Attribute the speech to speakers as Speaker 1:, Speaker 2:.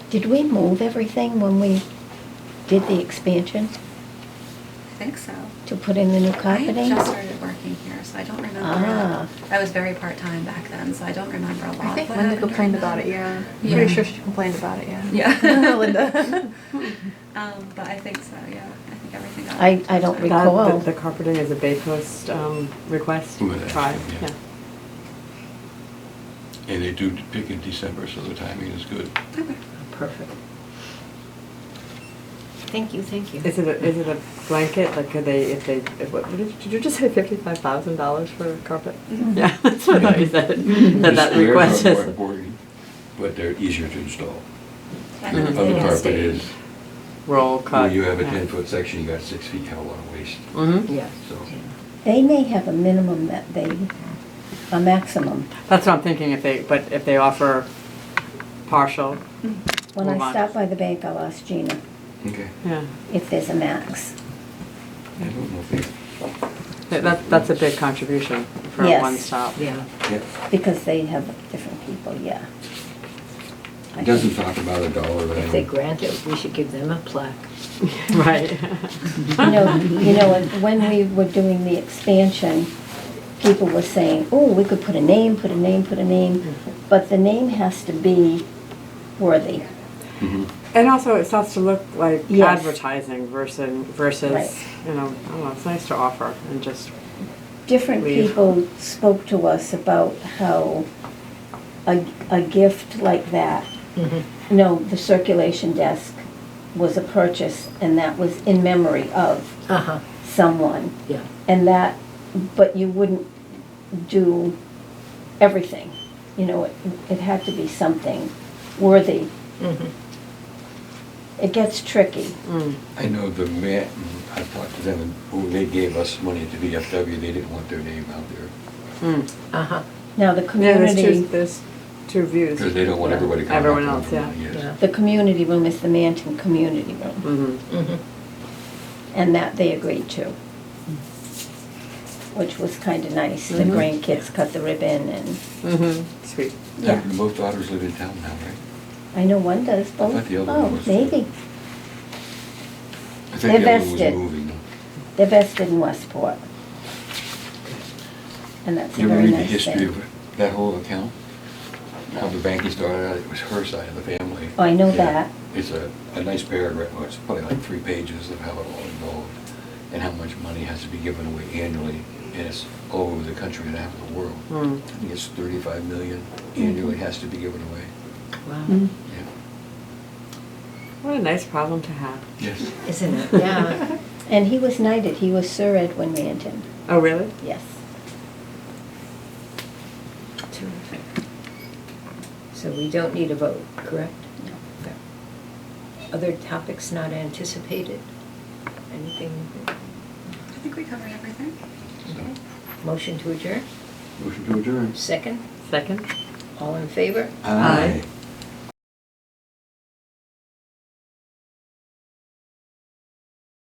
Speaker 1: Did we move everything when we did the expansion
Speaker 2: I think so.
Speaker 1: to put in the new
Speaker 2: I
Speaker 1: carpeting?
Speaker 2: had just started working here, so I don't remember.
Speaker 1: Ah.
Speaker 2: I was very part time back then, so I don't remember a lot.
Speaker 3: I think
Speaker 2: What
Speaker 3: Linda
Speaker 2: happened
Speaker 3: complained
Speaker 2: during
Speaker 3: about
Speaker 2: that?
Speaker 3: it, yeah.
Speaker 2: Yeah.
Speaker 3: Pretty sure she complained about it, yeah.
Speaker 2: Yeah.
Speaker 3: Linda.
Speaker 2: Um, but I think so. Yeah, I think everything. got
Speaker 1: I- I don't
Speaker 2: sorted.
Speaker 1: recall.
Speaker 4: That- The the carpeting is a Bay Coast um, request,
Speaker 5: Well, that's-
Speaker 4: tribe,
Speaker 5: yeah.
Speaker 4: yeah.
Speaker 5: And they do pick in December, so the timing is good.
Speaker 2: Okay.
Speaker 4: Perfect.
Speaker 6: Thank you, thank you.
Speaker 4: Is it, a- is it a blanket, like, could they, if they, if what, what did did you just say fifty-five thousand dollars for carpet?
Speaker 1: Mm-hmm.
Speaker 2: Mhm.
Speaker 4: Yeah, that's what I thought you said, that that
Speaker 5: They're not
Speaker 4: request
Speaker 5: more
Speaker 4: is.
Speaker 5: important, But they're easier to install.
Speaker 2: Yeah,
Speaker 5: The
Speaker 2: that's
Speaker 5: other
Speaker 2: it.
Speaker 5: carpet
Speaker 6: stay.
Speaker 5: is,
Speaker 4: Roll cut.
Speaker 5: when you have a ten-foot section, you got six feet held on waste,
Speaker 4: Mm-hmm,
Speaker 6: Yeah.
Speaker 5: so.
Speaker 1: They may have a minimum that they, a maximum.
Speaker 4: that's what I'm thinking, if they, but if they offer partial,
Speaker 1: Mm-hmm. When
Speaker 4: Move on.
Speaker 1: I stopped by the bank, I asked Gina
Speaker 5: Okay.
Speaker 4: yeah,
Speaker 1: if there's a max.
Speaker 5: I don't know if they,
Speaker 4: That- that, that's a big contribution for a
Speaker 1: Yes.
Speaker 4: one-stop.
Speaker 6: Yeah.
Speaker 5: yeah.
Speaker 1: Because they have different people, yeah. I
Speaker 5: It doesn't
Speaker 1: think-
Speaker 5: talk about a dollar value.
Speaker 6: If they grant it, we should give them a plaque.
Speaker 4: Right.
Speaker 1: You know, you know, and when we were doing the expansion, people were saying, oh, we could put a name, put a name, put a name, but the name has to be worthy.
Speaker 5: Mhm.
Speaker 4: And also, it starts to look like
Speaker 1: Yes.
Speaker 4: advertising versus versus
Speaker 1: Right.
Speaker 4: you know. I don't know. It's nice to offer and just
Speaker 1: Different
Speaker 4: Leave.
Speaker 1: people spoke to us about how a, a gift like that,
Speaker 4: Mm-hmm.
Speaker 1: no, the circulation desk was a purchase, and that was in memory of
Speaker 6: Uh-huh,
Speaker 1: someone.
Speaker 6: yeah.
Speaker 1: And that, but you wouldn't do everything. You know, it, it had to be something worthy.
Speaker 6: Mhm.
Speaker 1: It gets tricky.
Speaker 4: mm,
Speaker 5: I know the man, I talked to them, and who they gave us money to VFW, they didn't want their name out there.
Speaker 4: mm.
Speaker 6: Uh-huh,
Speaker 1: Now, the
Speaker 4: yeah. There's two,
Speaker 1: community,
Speaker 4: there's two views.
Speaker 5: Because they don't want everybody coming. up
Speaker 4: Everyone
Speaker 5: to them
Speaker 4: else,
Speaker 5: for
Speaker 4: yeah.
Speaker 5: money, yes.
Speaker 1: the
Speaker 6: yeah.
Speaker 1: community room is the Manton Community Room,
Speaker 4: Mm-hmm.
Speaker 6: Mhm.
Speaker 1: and that they agreed to, which was kind of nice. The
Speaker 4: Mhm.
Speaker 1: grandkids cut the ribbon, and
Speaker 4: Mm-hmm. Sweet.
Speaker 1: Yeah.
Speaker 5: And Both daughters live in town now, right?
Speaker 1: I know one does both.
Speaker 5: thought the other one
Speaker 1: Oh,
Speaker 5: was-
Speaker 1: maybe.
Speaker 5: I think the
Speaker 1: They're
Speaker 5: other one was
Speaker 1: vested.
Speaker 5: moving.
Speaker 1: They're vested in Westport. And that's a
Speaker 5: You ever
Speaker 1: very
Speaker 5: read the
Speaker 1: nice
Speaker 5: history
Speaker 1: thing.
Speaker 5: of that whole account? How the banking started out, it was her side of the family.
Speaker 1: Oh, I know
Speaker 5: Yeah.
Speaker 1: that.
Speaker 5: It's a, a nice paragraph, well, it's probably like three pages of how it all involved and how much money has to be given away annually. And it's all over the country and half of the world.
Speaker 4: Mm.
Speaker 5: I think it's thirty-five million annually has to be given away.
Speaker 6: Wow,
Speaker 1: Mm.
Speaker 5: Yeah.
Speaker 4: What a nice problem to have.
Speaker 5: Yes.
Speaker 6: isn't it? Yeah.
Speaker 1: And he was knighted, he was Sir Edwin Manton,
Speaker 4: Oh really?
Speaker 1: yes.
Speaker 6: Terrific. So we don't need a vote, correct?
Speaker 1: No.
Speaker 6: Okay. Other topics not anticipated? Anything?
Speaker 2: I think we covered everything.
Speaker 5: So,
Speaker 1: Mm-hmm.
Speaker 6: Motion to adjourn?
Speaker 5: Motion to adjourn.
Speaker 6: Second?
Speaker 4: Second.
Speaker 6: All in favor?
Speaker 4: Aye.
Speaker 5: Aye.